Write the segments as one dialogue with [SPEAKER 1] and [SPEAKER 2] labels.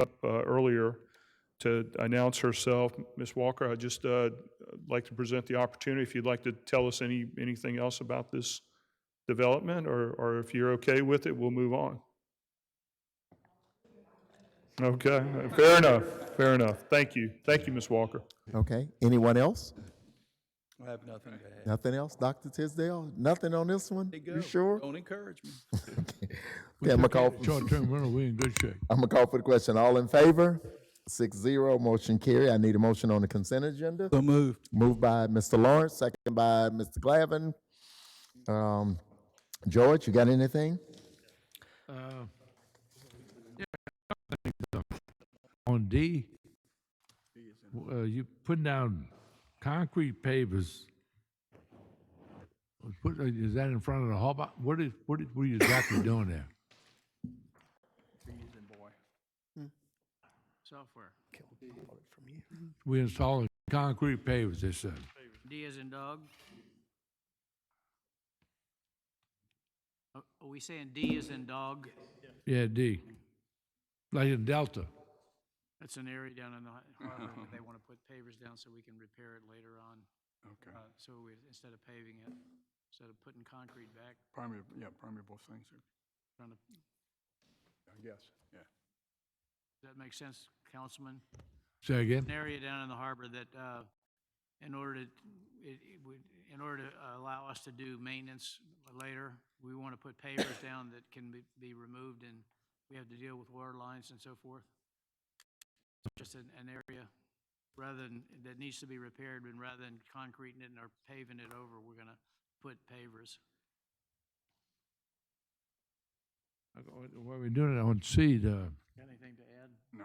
[SPEAKER 1] up uh, earlier to announce herself. Ms. Walker, I'd just uh, like to present the opportunity, if you'd like to tell us any, anything else about this development, or, or if you're okay with it, we'll move on. Okay, fair enough, fair enough. Thank you. Thank you, Ms. Walker.
[SPEAKER 2] Okay, anyone else?
[SPEAKER 3] I have nothing to add.
[SPEAKER 2] Nothing else, Dr. Tisdale? Nothing on this one?
[SPEAKER 3] They go.
[SPEAKER 2] You sure?
[SPEAKER 3] Don't encourage me.
[SPEAKER 2] Okay, I'm gonna call,
[SPEAKER 4] Short-term rental, we in good shape.
[SPEAKER 2] I'm gonna call for the question. All in favor? Six zero, motion carry. I need a motion on the consent agenda.
[SPEAKER 3] So moved.
[SPEAKER 2] Moved by Mr. Lawrence, second by Mr. Glavin. Um, George, you got anything?
[SPEAKER 4] On D, uh, you putting down concrete pavers. Put- uh, Is that in front of the hall? What is, what is, what are you exactly doing there?
[SPEAKER 5] Software.
[SPEAKER 4] We installing concrete pavers, they said.
[SPEAKER 5] D as in dog. Are are we saying D as in dog?
[SPEAKER 4] Yeah, D. Like in Delta.
[SPEAKER 5] That's an area down in the har- harbor where they want to put pavers down so we can repair it later on.
[SPEAKER 6] Okay,
[SPEAKER 5] Uh, So we, instead of paving it, instead of putting concrete back,
[SPEAKER 6] primary, yeah, primary both things, I
[SPEAKER 5] trying to, does
[SPEAKER 6] guess, yeah.
[SPEAKER 5] that make sense, Councilman?
[SPEAKER 4] Say again?
[SPEAKER 5] An area down in the harbor that, uh, in order to, it, it would, in order to allow us to do maintenance later, we want to put pavers down that can be, be removed and we have to deal with water lines and so forth. Just an, an area, rather than, that needs to be repaired and rather than concreting it or paving it over, we're gonna put pavers.
[SPEAKER 4] What we're doing it on C, the,
[SPEAKER 5] Got anything to add?
[SPEAKER 6] No.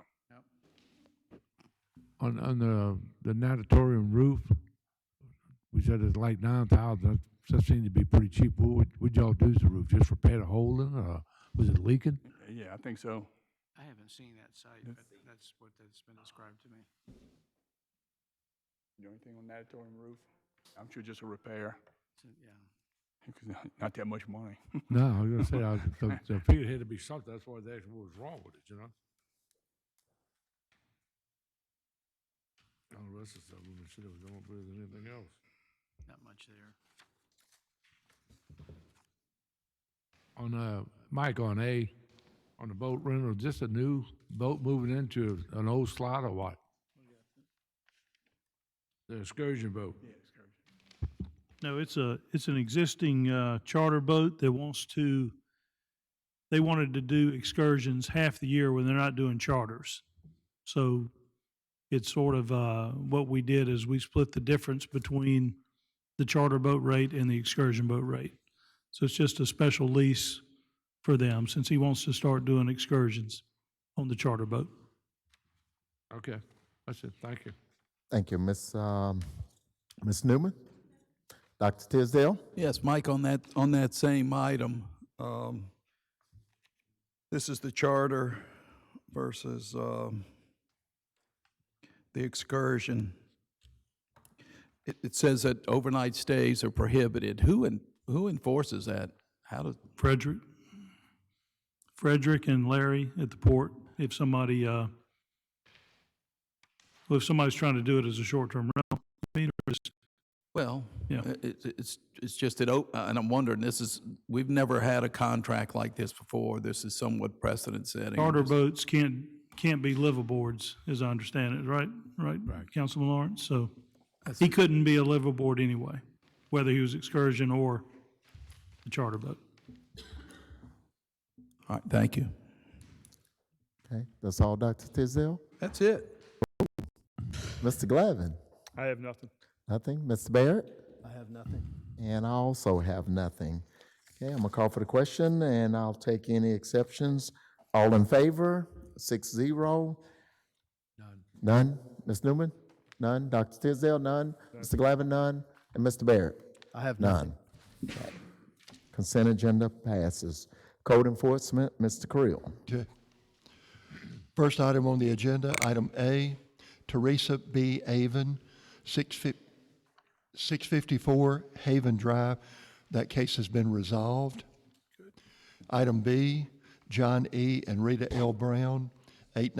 [SPEAKER 5] Nope.
[SPEAKER 4] on, on the, the natatorium roof, we said it's like nine thousand, that seemed to be pretty cheap. What would, would y'all do to the roof? Just repair the hole in it, or was it leaking?
[SPEAKER 6] Yeah, I think so.
[SPEAKER 5] I haven't seen that site, but that's what that's been described to me.
[SPEAKER 6] Do anything on natatorium roof? I'm sure just a repair,
[SPEAKER 5] So, Yeah.
[SPEAKER 6] because not- not that much money.
[SPEAKER 4] No, I was gonna say, I, was- I- I figured it had to be something, that's why they asked what was wrong with it, you know? All the rest of the stuff, we should have done with anything else.
[SPEAKER 5] Not much there.
[SPEAKER 4] On, uh, Mike, on A, on the boat rental, just a new boat moving into an old slot or what? The excursion boat.
[SPEAKER 7] No, it's a, it's an existing uh, charter boat that wants to, they wanted to do excursions half the year when they're not doing charters. So it's sort of, uh, what we did is we split the difference between the charter boat rate and the excursion boat rate. So it's just a special lease for them since he wants to start doing excursions on the charter boat.
[SPEAKER 4] Okay, that's it, thank you.
[SPEAKER 2] Thank you, Ms., um, Ms. Newman? Dr. Tisdale?
[SPEAKER 3] Yes, Mike, on that, on that same item, um, this is the charter versus, um, the excursion. It, it says that overnight stays are prohibited. Who en, who enforces that? How does,
[SPEAKER 7] Frederick, Frederick and Larry at the port, if somebody, uh, well, if somebody's trying to do it as a short-term rental, I mean, or is-
[SPEAKER 3] well,
[SPEAKER 7] Yeah.
[SPEAKER 3] i- it, it's, it's just that, o- and I'm wondering, this is, we've never had a contract like this before. This is somewhat precedent setting.
[SPEAKER 7] charter boats can't, can't be liveaboards, as I understand it, right? Right, Councilman Lawrence? So he couldn't be a liveaboard anyway, whether he was excursion or the charter boat.
[SPEAKER 3] All right, thank you.
[SPEAKER 2] Okay, that's all, Dr. Tisdale?
[SPEAKER 3] That's it.
[SPEAKER 2] Mr. Glavin?
[SPEAKER 1] I have nothing.
[SPEAKER 2] Nothing. Mr. Barrett? I have nothing. And I also have nothing. Okay, I'm gonna call for the question and I'll take any exceptions. All in favor? Six zero? None. None? Ms. Newman? None? Dr. Tisdale? None? Mr. Glavin? None? And Mr. Barrett? I have none. Okay. Consent agenda passes. Code enforcement, Mr. Creel.
[SPEAKER 8] Okay. First item on the agenda, item A, Teresa B. Avon, 650 654 Haven Drive. That case has been resolved. Item B, John E. and Rita L. Brown, 890